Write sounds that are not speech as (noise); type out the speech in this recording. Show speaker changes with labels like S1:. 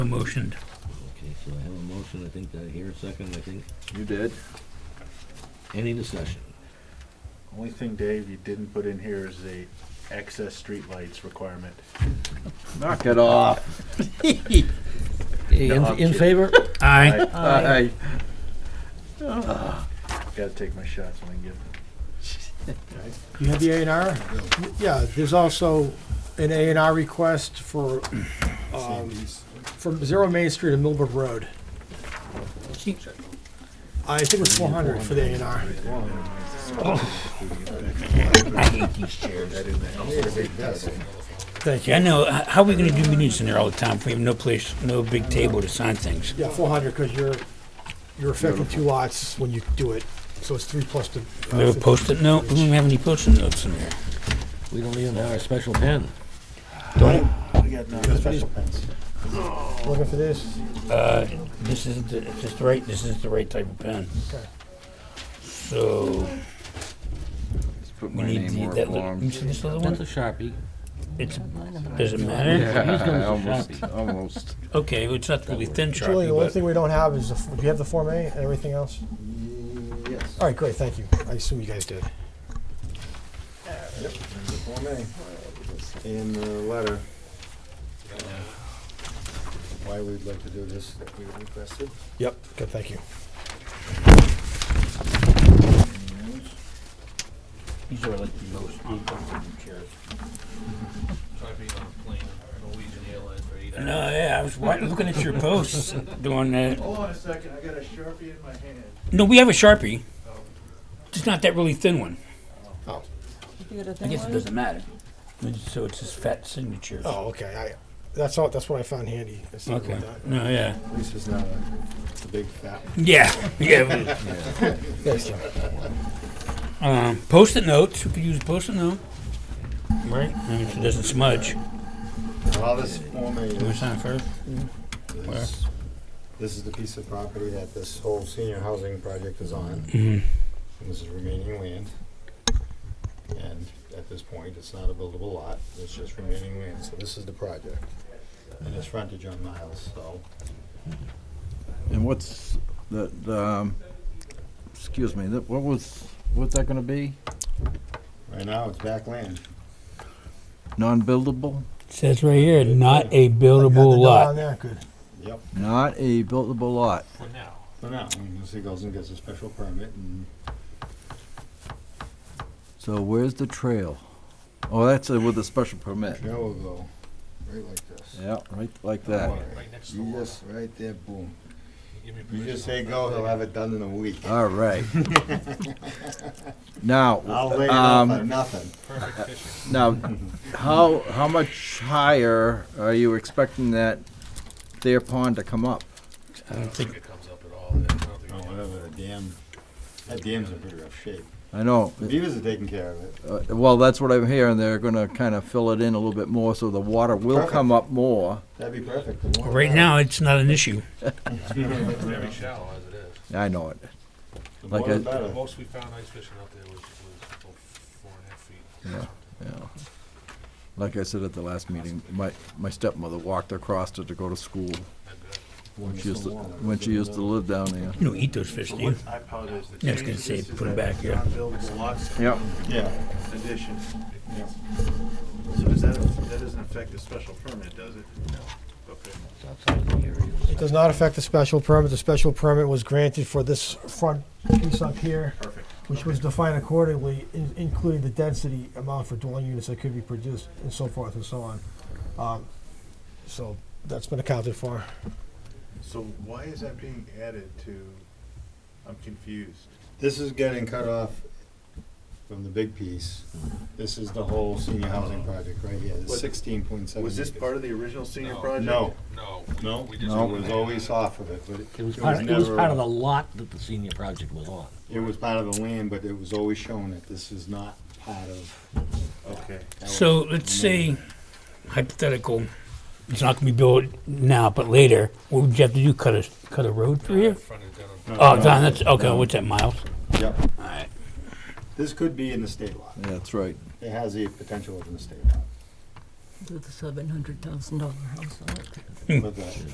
S1: motioned.
S2: Okay, so I have a motion, I think, I hear a second, I think.
S3: You did.
S2: Any discussion?
S4: Only thing, Dave, you didn't put in here is the excess streetlights requirement.
S3: Knock it off.
S2: Okay, In,
S3: No, I'm
S2: in
S3: kidding.
S2: favor?
S1: Aye.
S4: I
S3: Aye.
S4: gotta take my shots when I get them.
S5: You have the A and R? Yeah, there's also an A and R request for, um, from Zero Main Street to Millbrook Road. I think it's four hundred for the A and R.
S1: I hate these chairs.
S5: Thank
S1: Yeah, I
S5: you.
S1: know. H- How are we gonna do meetings in there all the time if we have no place, no big table to sign things?
S5: Yeah, four hundred, because you're, you're affecting two lots when you do it, so it's three plus the.
S1: Do we have a post-it note? We don't have any post-it notes in there.
S2: We don't even have our special pen.
S4: We got no special pens.
S5: Looking for this?
S1: Uh, this isn't, the- it's just the right, this is the right type of pen.
S5: Okay.
S1: So,
S3: Just put
S1: we
S3: my
S1: need
S3: name
S1: the,
S3: more
S1: that, li- you
S3: (laughs) forms.
S1: see this other
S2: That's
S1: one?
S2: a Sharpie.
S1: It's, does it matter?
S2: Yeah, he's done
S3: Yeah,
S2: some
S3: almost,
S2: shopping.
S3: almost.
S1: Okay, well, it's not really thin
S5: Julie, the only
S1: Sharpie,
S5: thing
S1: but
S5: we don't have is, the f- do you have the Form A and everything else?
S3: Yes.
S5: All right, great, thank you. I assume you guys did.
S6: in the letter, uh, why we'd like to do this, that we requested.
S5: Yep. Good, thank you.
S1: these are like the most uncomfortable chairs. No, yeah, I was wa- looking at your posts doing that.
S4: Hold on a second, I got a Sharpie in my hand.
S1: No, we have a Sharpie. Just not that really thin one.
S7: You got a
S1: I
S7: thing
S1: guess it
S7: on?
S1: doesn't matter. So it's his fat signature.
S5: Oh, okay, I, that's all, that's what I found handy. It's not
S1: Okay.
S5: like that.
S1: No, yeah.
S6: At least it's not a, it's a big fat one.
S1: Yeah, yeah.
S5: Thanks, Jim.
S1: Um, post-it notes. We could use a post-it note. Right? I mean, if it doesn't smudge.
S6: All this Form A
S1: You want to
S6: is,
S1: sign first? Where?
S6: is- this is the piece of property that this whole senior housing project is on.
S1: Mhm.
S6: And This is remaining land. And at this point, it's not a buildable lot, it's just remaining land, so this is the project. And it's frontage on Miles, so
S3: And what's the, the, um, excuse me, that, what was, what's that gonna be?
S6: right now it's back land.
S3: Non-buildable?
S1: Says right here, not a
S5: Got the
S1: buildable
S5: note on
S1: lot.
S5: there? Good.
S6: Yep.
S3: Not a buildable lot.
S6: For now, unless he goes and gets a special permit and
S3: So where's the trail? Oh, that's uh, with a special permit.
S6: Trail will go right like this.
S3: Yeah, right like that.
S6: You just, right there, boom. You just say go, he'll have it done in a week.
S3: All (laughs) right. Now,
S6: I'll lay it out for
S3: um,
S6: nothing.
S3: now, how, how much higher are you expecting that their pond to come up?
S1: I don't think.
S6: Oh, whatever, the dam, that dam's in pretty rough shape.
S3: I know,
S6: The beavers are taking care of it.
S3: uh, well, that's what I'm hearing, they're gonna kind of fill it in a little bit more, so the water will
S6: Perfect.
S3: come up more.
S6: That'd be perfect. The more
S1: Right
S6: the
S1: now, it's not an issue.
S8: Very shallow as it is.
S3: I know it.
S6: better. The
S3: like
S6: more the
S3: a-
S8: The
S6: better.
S8: most we found ice fishing out there was, was about four and a half feet.
S3: Yeah. Like I said at the last meeting, my, my stepmother walked across it to go to school. When she used to, when she used to live down there.
S1: You don't eat those fish, do you?
S4: I apologize. The
S1: Yeah, I was gonna
S4: change,
S1: say,
S4: this is
S1: put 'em
S4: that
S1: back here.
S4: Non-buildable lots
S3: Yep.
S6: Yeah,
S4: addition.
S6: yeah.
S4: So does that, that doesn't affect the special permit, does it? No. Okay.
S5: It does not affect the special permit. The special permit was granted for this front piece up here,
S4: Perfect.
S5: which was defined accordingly, in- including the density amount for dwelling units that could be produced and so forth and so on. Um, So that's been accounted for.
S4: So why is that being added to, I'm confused.
S6: This is getting cut off from the big piece. This is the whole senior housing project right here, the
S4: Was-
S6: sixteen point seven.
S4: Was this part of the original senior project?
S6: No,
S8: No.
S6: no,
S8: We
S6: it
S8: just-
S6: was always off of it, but it
S2: It was
S6: it
S2: part, it was
S6: never-
S2: part of the lot that the senior project was on.
S6: It was part of the land, but it was always shown that this is not part of.
S4: Okay.
S6: that was-
S1: So let's say hypothetical, it's not gonna be built now, but later, what would you have to do, cut a, cut a road through here?
S8: Front of Denham.
S1: Oh, Don, that's, okay, what's that, miles?
S6: Yep,
S1: Alright.
S6: this could be in the state lot.
S3: Yeah, That's right.
S6: It has the potential of an estate lot.
S7: With a seven hundred thousand dollar house on it.
S6: But uh, the-